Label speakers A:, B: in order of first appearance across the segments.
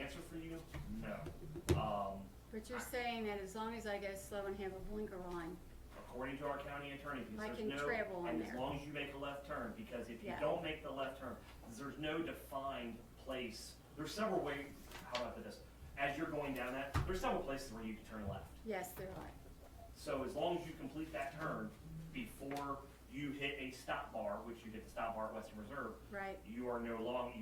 A: answer for you, no. Um,
B: But you're saying that as long as I go slow and have a blinker on,
A: according to our county attorney,
B: I
A: because there's
B: can
A: no.
B: travel in
A: And as
B: there.
A: long as you make a left turn, because if you
B: Yeah.
A: don't make the left turn, there's no defined place. There's several ways, how about this? As you're going down that, there's several places where you can turn left.
B: yes, there are.
A: So as long as you complete that turn before you hit a stop bar, which you hit the stop bar at Western Reserve,
B: Right,
A: you are no longer,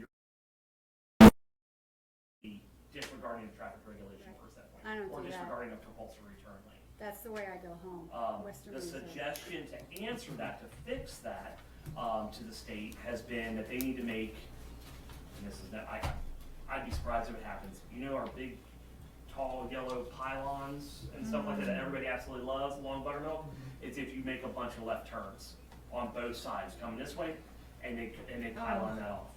A: you're disregarding the traffic regulation for that point.
B: I don't
A: Or
B: do that.
A: disregarding a compulsory turn lane.
B: that's the way I go home,
A: Um,
B: Western
A: the
B: Reserve.
A: suggestion to answer that, to fix that, um, to the state has been that they need to make, and this is not, I, I'd be surprised if it happens. You know our big, tall, yellow pylons and stuff like that
B: Mm-hmm.
A: that everybody absolutely loves along Buttermilk? It's if you make a bunch of left turns on both sides, coming this way, and they, and they pylon that off.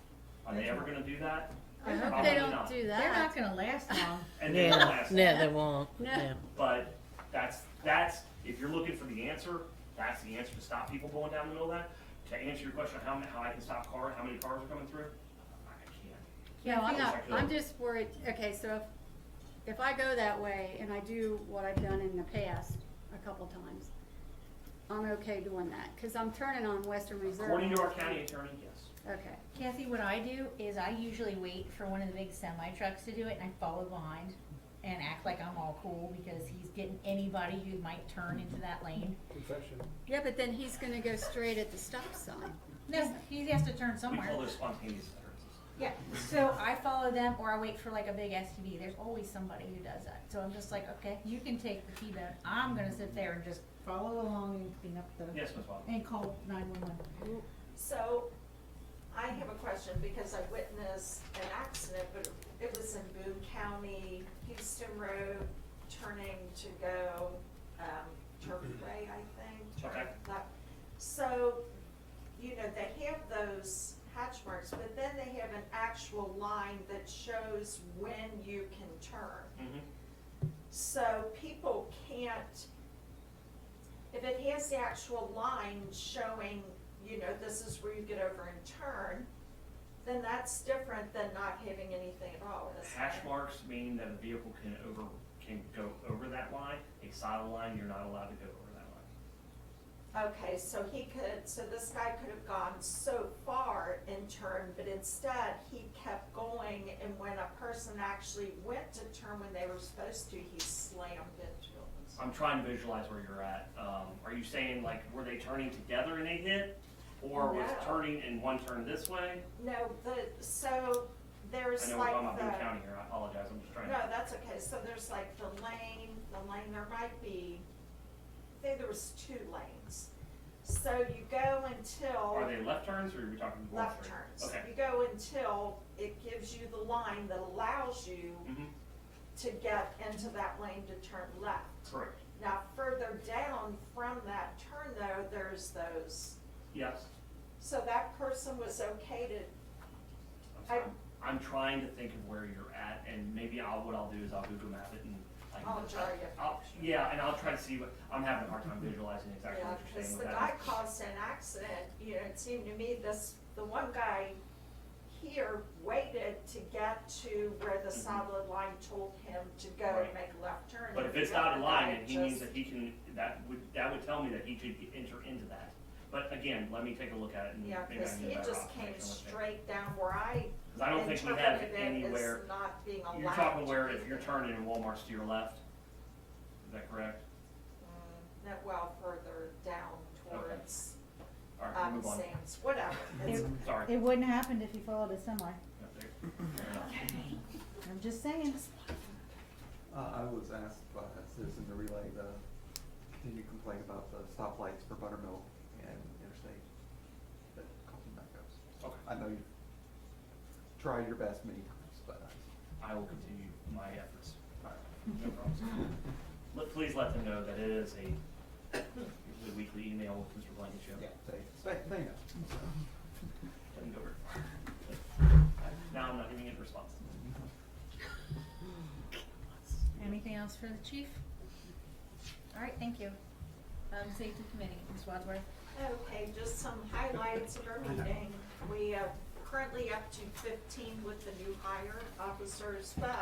A: Are they ever gonna do that?
B: Oh. I hope
A: Probably
B: they don't
A: not.
B: do
C: They're
B: that.
C: not gonna last long.
A: And they don't
D: Yeah,
A: last long.
D: no, they won't,
B: No.
D: yeah.
A: But that's, that's, if you're looking for the answer, that's the answer to stop people going down the middle of that. To answer your question, how, ma- how I can stop cars, how many cars are coming through? I can't.
B: No, I'm
A: Yeah,
B: not,
A: I could.
B: I'm just worried, okay, so if, if I go that way and I do what I've done in the past a couple times, I'm okay doing that, cause I'm turning on Western Reserve.
A: According to our county attorney, yes.
B: Okay,
C: Kathy, what I do is I usually wait for one of the big semi trucks to do it and I follow behind and act like I'm all cool because he's getting anybody who might turn into that lane.
E: Confession.
B: yeah, but then he's gonna go straight at the stop sign.
C: No, he has to turn
A: We
C: somewhere.
A: call those spontaneous utterances.
C: Yeah, so I follow them or I wait for like a big SUV. There's always somebody who does that. So I'm just like, okay, you can take the T-bone. I'm gonna sit there and just follow along and clean up the,
A: Yes, Ms. Bobby?
C: and call nine-one-one.
F: So, I have a question because I witnessed an accident, but it was in Boone County, Houston Road, turning to go, um, Turfway, I think. turn
A: Okay.
F: left. So, you know, they have those hatch marks, but then they have an actual line that shows when you can turn.
A: Mm-hmm.
F: So people can't, if it has the actual line showing, you know, this is where you get over and turn, then that's different than not having anything at all, isn't it?
A: Hash marks mean that a vehicle can over, can go over that line. A solid line, you're not allowed to go over that line.
F: Okay, so he could, so this guy could have gone so far and turned, but instead he kept going and when a person actually went to turn when they were supposed to, he slammed into them.
A: I'm trying to visualize where you're at. Um, are you saying like, were they turning together and they hit? Or was
F: No.
A: turning and one turned this way?
F: No, the, so
A: I
F: there's
A: know
F: like
A: we're talking
F: the.
A: about Boone County here, I apologize, I'm just trying
F: No,
A: to,
F: that's okay, so there's like the lane, the lane, there might be, I think there was two lanes. So you go
A: are
F: until
A: they left turns or are we talking going
F: left
A: straight?
F: turns.
A: Okay.
F: You go until it gives you the line that allows you
A: Mm-hmm,
F: to get into that lane to turn left.
A: correct,
F: Now, further down from that turn though, there's those,
A: yes.
F: so that person was okay to,
A: I'm
F: I-
A: sorry. I'm trying to think of where you're at and maybe I'll, what I'll do is I'll Google map it and I can.
F: I'll draw you a
A: I'll- Yeah, and I'll try to see what, I'm having a hard time visualizing exactly
F: yeah,
A: what you're
F: because
A: saying
F: the
A: with
F: guy
A: that.
F: caused an accident, you know, it seemed to me this, the one guy here waited to get to where the solid line told him to go
A: Mm-hmm. Right.
F: and make a left turn.
A: But if
F: and the
A: it's not
F: other
A: in line,
F: guy
A: then he means
F: just-
A: that he can, that would, that would tell me that he could enter into that. But again, let me take a look at it and maybe I
F: Yeah,
A: can get
F: because he
A: better
F: just
A: off
F: came
A: making a mistake.
F: straight down where I
A: 'Cause I don't think we have
F: interpreted
A: it
F: it
A: anywhere.
F: as not being allowed.
A: You're talking
F: to
A: where
F: be
A: if you're
F: there.
A: turning and Walmart's to your left, is that correct?
F: Mm, That well further down
A: Okay.
F: towards,
A: All right, we'll
F: um,
A: move on.
F: Sam's, whatever. It's-
C: It-
A: Sorry.
C: It wouldn't happen if he followed a semi.
A: Yeah, there-
C: I'm just saying.
E: Uh, I was asked by a citizen to relay the, continued complaint about the stoplights for Buttermilk and Interstate that causing backups.
A: Okay,
E: I know you've tried your best many times, but
A: I will continue my efforts.
E: I, I
A: No problem. Let- Please let them know that it is a usually weekly email with Mr. Blankenship.
E: Yeah, they, they know.
A: Doesn't go very far. Now I'm not giving it a response.
C: Anything else for the chief? All right, thank you. Um, safety committee, Ms. Wadsworth.
F: Okay, just some highlights of our uh, meeting. We are currently up to fifteen with the new hire officers, but